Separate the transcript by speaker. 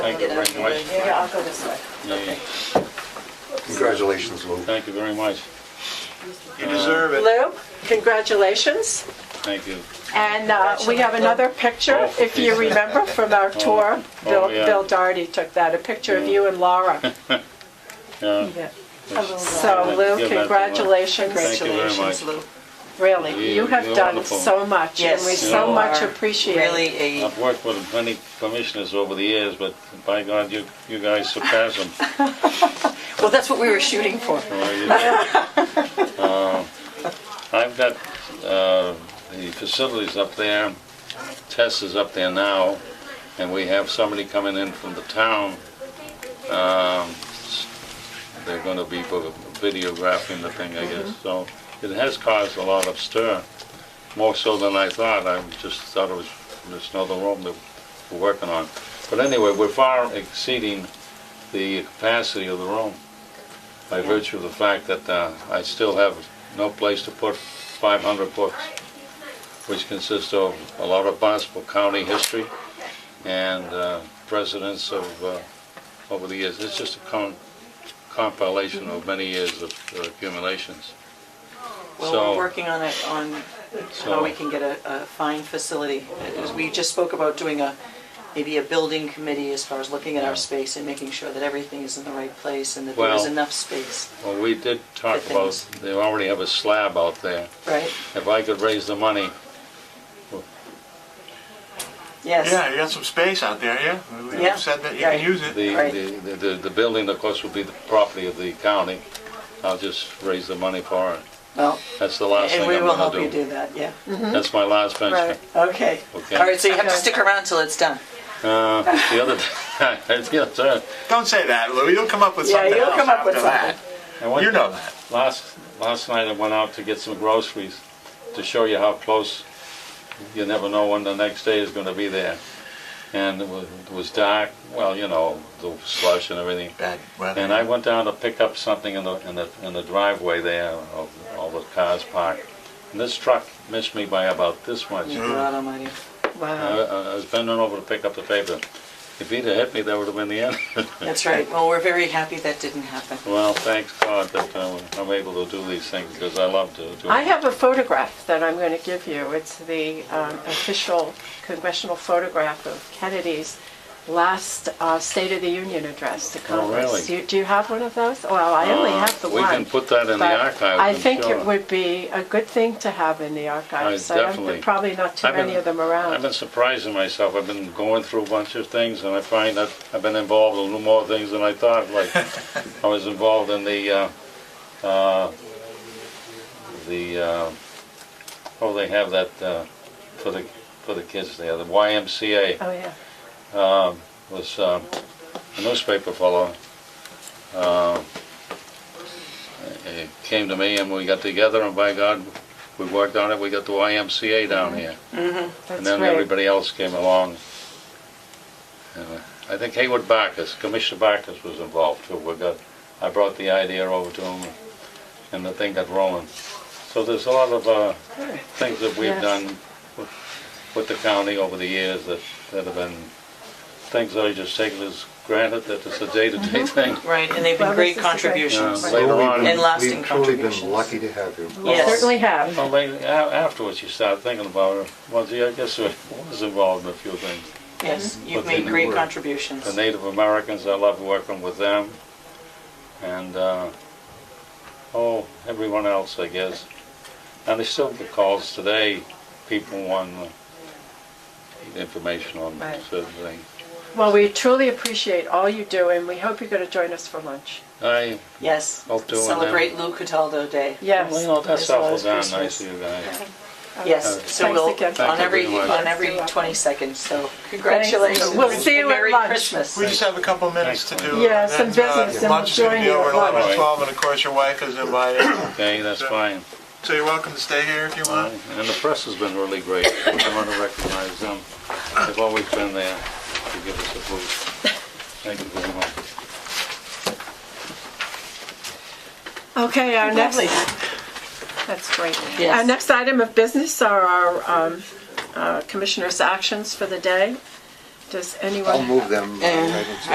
Speaker 1: Thank you very much.
Speaker 2: Yeah, I'll go this way.
Speaker 1: Yeah.
Speaker 3: Congratulations, Lou.
Speaker 1: Thank you very much.
Speaker 4: You deserve it.
Speaker 2: Lou, congratulations.
Speaker 1: Thank you.
Speaker 2: And uh, we have another picture, if you remember, from our tour.
Speaker 1: Oh,
Speaker 2: Bill
Speaker 1: yeah.
Speaker 2: Bill Darty took that, a picture of you and Laura.
Speaker 1: Yeah.
Speaker 2: So Lou,
Speaker 1: Give that to Laura.
Speaker 2: congratulations,
Speaker 1: Thank you very
Speaker 5: Congratulations,
Speaker 1: much.
Speaker 5: Lou.
Speaker 2: really. You
Speaker 1: You-
Speaker 2: have
Speaker 1: you're
Speaker 2: done
Speaker 1: wonderful.
Speaker 2: so much, and
Speaker 5: Yes,
Speaker 2: we
Speaker 5: you
Speaker 2: so
Speaker 1: are.
Speaker 2: much appreciate
Speaker 5: Really
Speaker 2: it.
Speaker 5: a,
Speaker 1: I've worked with many commissioners over the years, but by God, you, you guys surpass them.
Speaker 5: well, that's what we were shooting for.
Speaker 1: Well, you know, uh, I've got uh, the facilities up there, Tess is up there now, and we have somebody coming in from the town. Um, s- They're going to be vo- videographing the thing, I guess, so it has caused a lot of stir, more so than I thought, I just thought it was just another room that we're working on. But anyway, we're far exceeding the capacity of the room by virtue of the fact that uh, I still have no place to put 500 books, which consist of a lot of Barnstable County history and uh, presidents of, uh, over the years. It's just a com- compilation of many years of uh, accumulations.
Speaker 5: Well,
Speaker 1: So-
Speaker 5: we're working on it, on how
Speaker 1: So-
Speaker 5: we can get a, a fine facility. As We just spoke about doing a, maybe a building committee as far as looking at our space and making sure that everything is in the right place and that there is
Speaker 1: Well-
Speaker 5: enough space,
Speaker 1: Well, we did talk
Speaker 5: Good
Speaker 1: about,
Speaker 5: things.
Speaker 1: they already have a slab out there.
Speaker 5: right?
Speaker 1: If I could raise the money,
Speaker 5: Yes,
Speaker 4: Yeah, you got some space out there, yeah? We
Speaker 5: Yeah.
Speaker 4: said that you can
Speaker 5: Right.
Speaker 4: use
Speaker 1: the,
Speaker 4: it.
Speaker 2: Right.
Speaker 1: the- the, the- the building, of course, would be the property of the county. I'll just raise the money for it.
Speaker 5: well,
Speaker 1: That's the last thing
Speaker 5: and
Speaker 1: I'm
Speaker 5: we will
Speaker 1: gonna
Speaker 5: help you
Speaker 1: do.
Speaker 5: do that, yeah.
Speaker 1: That's my last venture.
Speaker 2: Right.
Speaker 5: Okay.
Speaker 1: Okay.
Speaker 5: All right, so you have to stick around till it's done.
Speaker 1: Uh, The other, the other, time,
Speaker 4: Don't say that, Lou. You'll come up with
Speaker 2: Yeah,
Speaker 4: something
Speaker 2: you'll
Speaker 4: else
Speaker 2: come up with
Speaker 4: after that.
Speaker 1: I went-
Speaker 4: You know that.
Speaker 1: Last, last night I went out to get some groceries to show you how close, you never know when the next day is gonna be there. And it was, it was dark, well, you know, the slush and everything.
Speaker 4: Bad weather.
Speaker 1: And I went down to pick up something in the, in the, in the driveway there of all the cars parked. And this truck missed me by about this much.
Speaker 5: God almighty.
Speaker 1: I,
Speaker 2: Wow.
Speaker 1: I was bending over to pick up the paper. If he'd have hit me, that would have been the end.
Speaker 5: That's right. Well, we're very happy that didn't happen.
Speaker 1: Well, thanks God that uh, I'm able to do these things because I love to do
Speaker 2: I
Speaker 1: it.
Speaker 2: have a photograph that I'm going to give you. It's the um, official congressional photograph of Kennedy's last uh, State of the Union address to Congress.
Speaker 1: Oh, really?
Speaker 2: You- Do you have one of those? Well, I only
Speaker 1: Uh,
Speaker 2: have the
Speaker 1: We
Speaker 2: one.
Speaker 1: can put that in the
Speaker 2: but
Speaker 1: archives,
Speaker 2: I
Speaker 1: I'm
Speaker 2: think
Speaker 1: sure.
Speaker 2: it would be a good thing to have in the archives.
Speaker 1: I
Speaker 2: I don't-
Speaker 1: definitely-
Speaker 2: Probably not too
Speaker 1: I've been-
Speaker 2: many of them
Speaker 1: I've been
Speaker 2: around.
Speaker 1: surprising myself. I've been going through a bunch of things and I find that I've been involved in a little more things than I thought. Like, I was involved in the, uh, uh, the, uh, oh, they have that uh, for the, for the kids there, the YMCA.
Speaker 2: Oh, yeah.
Speaker 1: um, was um, a newspaper fellow. Um, he came to me and we got together, and by God, we worked on it. We got the YMCA down here, and
Speaker 2: That's
Speaker 1: then
Speaker 2: great.
Speaker 1: everybody else came along. And, uh, I think Hayward Barkus, Commissioner Barkus, was involved too. We got, I brought the idea over to him, and the thing got rolling. So there's a lot of uh, things that we've
Speaker 2: Yes.
Speaker 1: done with, with the county over the years that, that have been things that I just take as granted that it's a
Speaker 2: Mm-hmm.
Speaker 1: day-to-day thing.
Speaker 5: Right, and they've
Speaker 2: Well,
Speaker 5: been great
Speaker 2: this is a great-
Speaker 5: contributions.
Speaker 1: Yeah, later on.
Speaker 5: And lasting
Speaker 3: We've truly
Speaker 5: contributions.
Speaker 3: been lucky to have you.
Speaker 5: Yes.
Speaker 2: Certainly have.
Speaker 1: Well, later, a- afterwards you start thinking about it. Well, gee, I guess I was involved in a few things.
Speaker 5: Yes, you've
Speaker 1: But they
Speaker 5: made great
Speaker 3: were-
Speaker 5: contributions.
Speaker 1: The Native Americans, I love working with them, and uh, oh, everyone else, I guess. And I still get calls today. People want uh, information on
Speaker 2: Right.
Speaker 1: certain things.
Speaker 2: Well, we truly appreciate all you do, and we hope you're going to join us for lunch.
Speaker 1: I
Speaker 5: Yes,
Speaker 1: Hope to, and then-
Speaker 5: celebrate Lou Cataldo Day.
Speaker 2: Yes.
Speaker 1: Well, you know, that's
Speaker 5: As well
Speaker 1: awful
Speaker 5: as
Speaker 1: darn nice
Speaker 5: Christmas.
Speaker 1: of you guys.
Speaker 5: Yes, so
Speaker 2: Thanks
Speaker 5: we'll,
Speaker 2: again.
Speaker 1: Thank
Speaker 5: on
Speaker 1: you
Speaker 5: every,
Speaker 1: very much.
Speaker 5: on every 22nd, so congratulations.
Speaker 2: We'll see you at
Speaker 5: Merry
Speaker 2: lunch.
Speaker 5: Christmas.
Speaker 4: We just have a couple minutes to do.
Speaker 2: Yeah, some
Speaker 4: and then, uh,
Speaker 2: business, and we'll
Speaker 4: Lunch is going
Speaker 2: join
Speaker 4: to be
Speaker 2: you
Speaker 4: over
Speaker 2: at
Speaker 4: at 11
Speaker 1: lunch.
Speaker 4: or 12, and of course, your wife is invited.
Speaker 1: Okay, that's fine.
Speaker 4: So you're welcome to stay here if you want.
Speaker 1: And the press has been really great. I want to recognize them. They've always been there to give us a boost. Thank you very much.
Speaker 2: Okay, our next,
Speaker 5: Lovely.
Speaker 2: that's great.
Speaker 5: Yes.
Speaker 2: Our next item of business are our um, uh, commissioners' actions for the day.
Speaker 6: Does anyone?
Speaker 3: I'll move them. uh,
Speaker 2: Eh,
Speaker 1: Oh,
Speaker 5: Eh.
Speaker 3: right into-